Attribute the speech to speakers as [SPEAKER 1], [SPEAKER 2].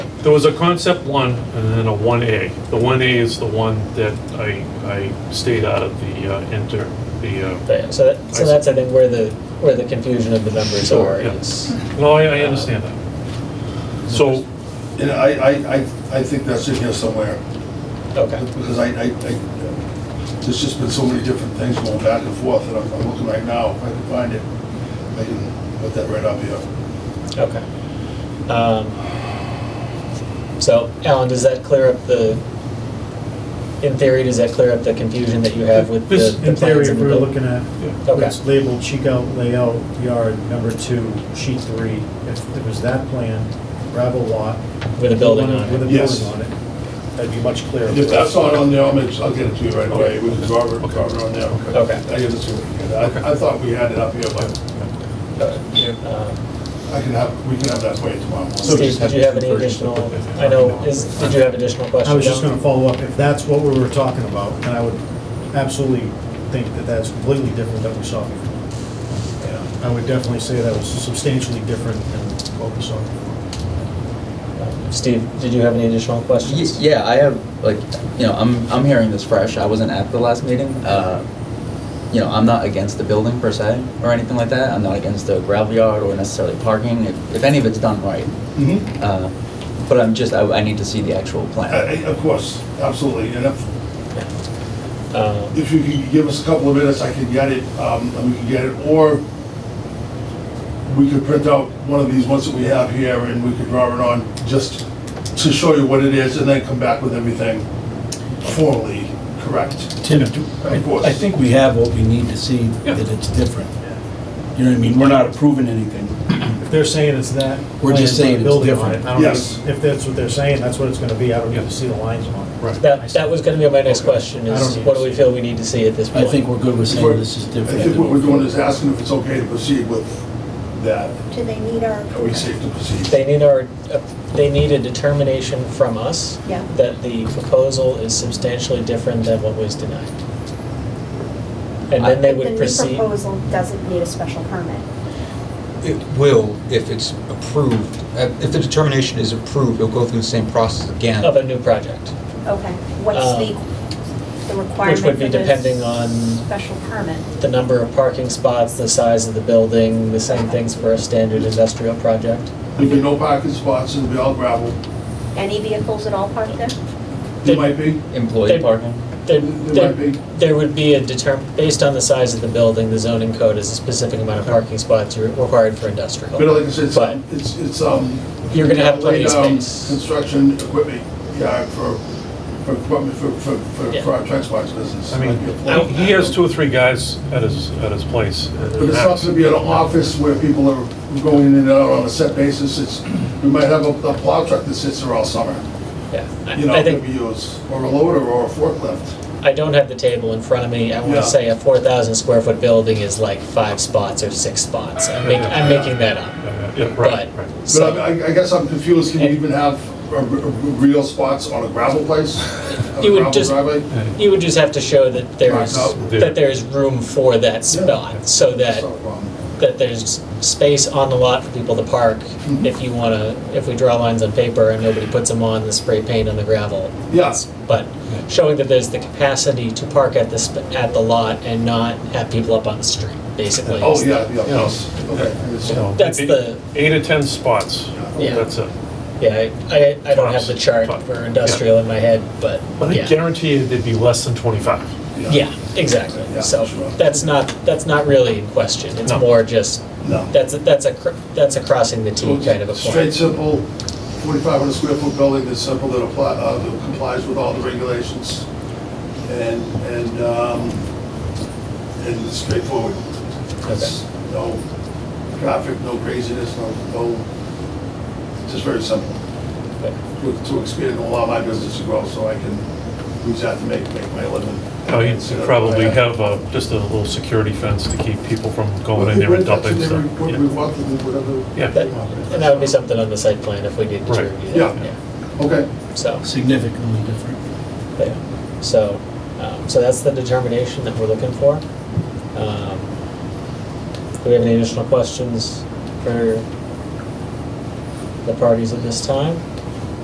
[SPEAKER 1] There was a concept one and then a one A. The one A is the one that I, I stayed out of the, uh, enter, the, uh,
[SPEAKER 2] But, so that, so
[SPEAKER 1] I see.
[SPEAKER 2] that's I think where the where the confusion of the numbers
[SPEAKER 1] Sure,
[SPEAKER 2] are
[SPEAKER 1] yeah.
[SPEAKER 2] is.
[SPEAKER 1] no, I, I understand that. So,
[SPEAKER 3] And I, I, I, I think that's in here somewhere,
[SPEAKER 2] Okay.
[SPEAKER 3] because I, I, I, there's just been so many different things going back and forth, and I'm, I'm looking right now, if I can find it. I can put that right up here.
[SPEAKER 2] Okay. Um, So, Alan, does that clear up the, in theory, does that clear up the confusion that you have with the
[SPEAKER 1] This-
[SPEAKER 2] the
[SPEAKER 4] In theory,
[SPEAKER 2] plans
[SPEAKER 4] if
[SPEAKER 2] and the
[SPEAKER 4] we're
[SPEAKER 2] buil-
[SPEAKER 4] looking at,
[SPEAKER 1] Yeah.
[SPEAKER 2] Okay.
[SPEAKER 4] it's labeled cheek out layout yard number two, sheet three. If it was that plan, gravel lot.
[SPEAKER 2] With a building on it.
[SPEAKER 4] With a
[SPEAKER 3] Yes.
[SPEAKER 4] building on it, that'd be much clearer.
[SPEAKER 3] If that's not on there, I'll, make- I'll get it to you right away, with the Robert, Robert on there.
[SPEAKER 2] Okay.
[SPEAKER 3] I get it to you. I, I thought we had it up here, but
[SPEAKER 2] Um,
[SPEAKER 3] I can have, we can have that for you tomorrow. morning.
[SPEAKER 4] So
[SPEAKER 2] Steve,
[SPEAKER 4] just
[SPEAKER 2] did
[SPEAKER 4] have
[SPEAKER 2] you have any
[SPEAKER 4] two versions
[SPEAKER 2] additional,
[SPEAKER 1] of it.
[SPEAKER 2] I know, is, did you have additional questions?
[SPEAKER 4] I was just
[SPEAKER 2] Alan?
[SPEAKER 4] gonna follow up, if that's what we were talking about, and I would absolutely think that that's completely different than we saw before. Yeah, I would definitely say that was substantially different than what we saw before.
[SPEAKER 2] Uh, Steve, did you have any additional
[SPEAKER 5] Y-
[SPEAKER 2] questions?
[SPEAKER 5] Yeah, I have, like, you know, I'm, I'm hearing this fresh, I wasn't at the last meeting. Uh, You know, I'm not against the building per se, or anything like that, I'm not against the gravel yard or necessarily parking, if, if any of it's done right.
[SPEAKER 3] Mhm.
[SPEAKER 5] Uh, But I'm just, I, I need to see the actual plan.
[SPEAKER 3] Uh, Of course, absolutely, and if,
[SPEAKER 2] Um,
[SPEAKER 3] if you could give us a couple of minutes, I can get it, um, and we can get it, or we could print out one of these ones that we have here, and we could draw it on, just to show you what it is, and then come back with everything formally correct.
[SPEAKER 6] Tim, do-
[SPEAKER 3] Of course.
[SPEAKER 6] I I think we have what we need to see that it's different. You know what I mean? We're not approving anything.
[SPEAKER 4] If they're saying it's that.
[SPEAKER 6] We're just
[SPEAKER 4] plan,
[SPEAKER 6] saying it's
[SPEAKER 4] building on it,
[SPEAKER 6] different.
[SPEAKER 4] I don't
[SPEAKER 3] Yes.
[SPEAKER 4] know If that's what they're saying, that's what it's gonna be, I don't need
[SPEAKER 1] Yeah.
[SPEAKER 4] to see the lines on it.
[SPEAKER 3] Right.
[SPEAKER 2] That, that was gonna be my next question,
[SPEAKER 4] I don't
[SPEAKER 2] is
[SPEAKER 4] need
[SPEAKER 2] what
[SPEAKER 4] to
[SPEAKER 2] do we
[SPEAKER 4] see.
[SPEAKER 2] feel we need to see at this
[SPEAKER 6] I
[SPEAKER 2] point?
[SPEAKER 6] think we're good with saying this is
[SPEAKER 3] I
[SPEAKER 6] different.
[SPEAKER 3] think what we're doing is asking if it's okay to proceed with that,
[SPEAKER 7] Do they need our
[SPEAKER 3] are we
[SPEAKER 7] approval?
[SPEAKER 3] safe to proceed?
[SPEAKER 2] They need our, uh, they need a determination from us
[SPEAKER 7] Yeah.
[SPEAKER 2] that the proposal is substantially different than what was denied. And then they
[SPEAKER 7] But
[SPEAKER 2] would proceed.
[SPEAKER 7] The new proposal doesn't need a special permit.
[SPEAKER 8] It will if it's approved. Uh, If the determination is approved, it'll go through the same process again.
[SPEAKER 2] Of a new project.
[SPEAKER 7] Okay, what's the, the requirement
[SPEAKER 2] Um, which would be
[SPEAKER 7] for this
[SPEAKER 2] depending on-
[SPEAKER 7] Special permit.
[SPEAKER 2] The number of parking spots, the size of the building, the same things for a standard industrial project.
[SPEAKER 3] There'd be no parking spots, it'll be all gravel,
[SPEAKER 7] Any vehicles at all parked there?
[SPEAKER 3] there might be,
[SPEAKER 5] Employee
[SPEAKER 2] They-
[SPEAKER 5] parking?
[SPEAKER 2] There,
[SPEAKER 3] There might be.
[SPEAKER 2] there would be a determ, based on the size of the building, the zoning code is a specific amount of parking spots you're required for industrial.
[SPEAKER 3] but uh, like I said, it's,
[SPEAKER 2] But-
[SPEAKER 3] it's, it's, um.
[SPEAKER 2] You're gonna have plenty of
[SPEAKER 3] laid down
[SPEAKER 2] space.
[SPEAKER 3] Construction equipment, yeah, for, for equipment, for, for, for-
[SPEAKER 2] Yeah.
[SPEAKER 3] for our transport business.
[SPEAKER 1] I mean,
[SPEAKER 3] Like,
[SPEAKER 1] he he has two or three guys at his, at his place. and
[SPEAKER 3] But it's not
[SPEAKER 1] that's-
[SPEAKER 3] gonna be an office where people are going in and out on a set basis, it's, we might have a a plow truck that sits there all summer,
[SPEAKER 2] Yeah, I-
[SPEAKER 3] you know,
[SPEAKER 2] I
[SPEAKER 3] that
[SPEAKER 2] think,
[SPEAKER 3] we use, or a loader or a forklift.
[SPEAKER 2] I don't have the table in front of me, I
[SPEAKER 3] Yeah.
[SPEAKER 2] wanna say a four thousand square foot building is like five spots or six spots, I'm making, I'm making that up.
[SPEAKER 1] Uh, Yeah, right,
[SPEAKER 2] But-
[SPEAKER 1] right.
[SPEAKER 3] But
[SPEAKER 2] So-
[SPEAKER 3] I- I, I guess I'm confused, can you even have a r- r- real spots on a gravel place? On a
[SPEAKER 2] You would
[SPEAKER 3] gravel
[SPEAKER 2] just-
[SPEAKER 3] driveway?
[SPEAKER 2] You would just have to show that there's,
[SPEAKER 3] Right,
[SPEAKER 1] no.
[SPEAKER 2] that there's room for that
[SPEAKER 3] Yeah.
[SPEAKER 2] spot, so that,
[SPEAKER 3] That's not a problem.
[SPEAKER 2] that there's space on the lot for people to park.
[SPEAKER 3] Mhm.
[SPEAKER 2] If you wanna, if we draw lines on paper and nobody puts them on, the spray paint on the gravel.
[SPEAKER 3] Yeah.
[SPEAKER 2] It's- But showing that there's the capacity to park at the, sp- at the lot and not have people up on the street, basically.
[SPEAKER 3] Oh,
[SPEAKER 2] is
[SPEAKER 3] yeah, yeah,
[SPEAKER 1] You know,
[SPEAKER 3] yes, okay. I
[SPEAKER 1] You know,
[SPEAKER 3] understand.
[SPEAKER 2] That's
[SPEAKER 1] eight-
[SPEAKER 2] the-
[SPEAKER 1] Eight or 10 spots,
[SPEAKER 2] Yeah.
[SPEAKER 1] that's it.
[SPEAKER 2] Yeah, I, I, I don't have the
[SPEAKER 1] Tops.
[SPEAKER 2] chart
[SPEAKER 1] Top.
[SPEAKER 2] for industrial in my head, but
[SPEAKER 1] But I
[SPEAKER 2] yeah.
[SPEAKER 1] guarantee you there'd be less than 25.
[SPEAKER 2] Yeah, exactly.
[SPEAKER 3] Yeah,
[SPEAKER 2] So
[SPEAKER 3] sure.
[SPEAKER 2] that's not, that's not really in question. It's
[SPEAKER 1] No.
[SPEAKER 2] more just,
[SPEAKER 3] No.
[SPEAKER 2] that's, a- that's a, cr- that's a crossing the T kind of a
[SPEAKER 3] Straight,
[SPEAKER 2] point.
[SPEAKER 3] simple, 4,500 square foot building that's simple, that apply, uh, that complies with all the regulations, and, and, um, and it's straightforward. It's No traffic, no craziness, no, no, it's just very simple. To to expand and allow my business to grow, so I can use that to make, make my living.
[SPEAKER 1] Now, You'd Uh, Oh, probably have uh, just a little security fence to keep people from going in there and dumping stuff.
[SPEAKER 3] When we
[SPEAKER 1] Yeah.
[SPEAKER 3] walk through, whatever.
[SPEAKER 1] Yeah.
[SPEAKER 2] That- And that would be something on the site plan if we needed to
[SPEAKER 1] Right.
[SPEAKER 2] review
[SPEAKER 3] Yeah.
[SPEAKER 2] that.
[SPEAKER 3] Okay.
[SPEAKER 2] Yeah. So,
[SPEAKER 6] Significantly different.
[SPEAKER 2] but yeah. so, um, so that's the determination that we're looking for. Um, Do we have any additional questions for the parties at this time?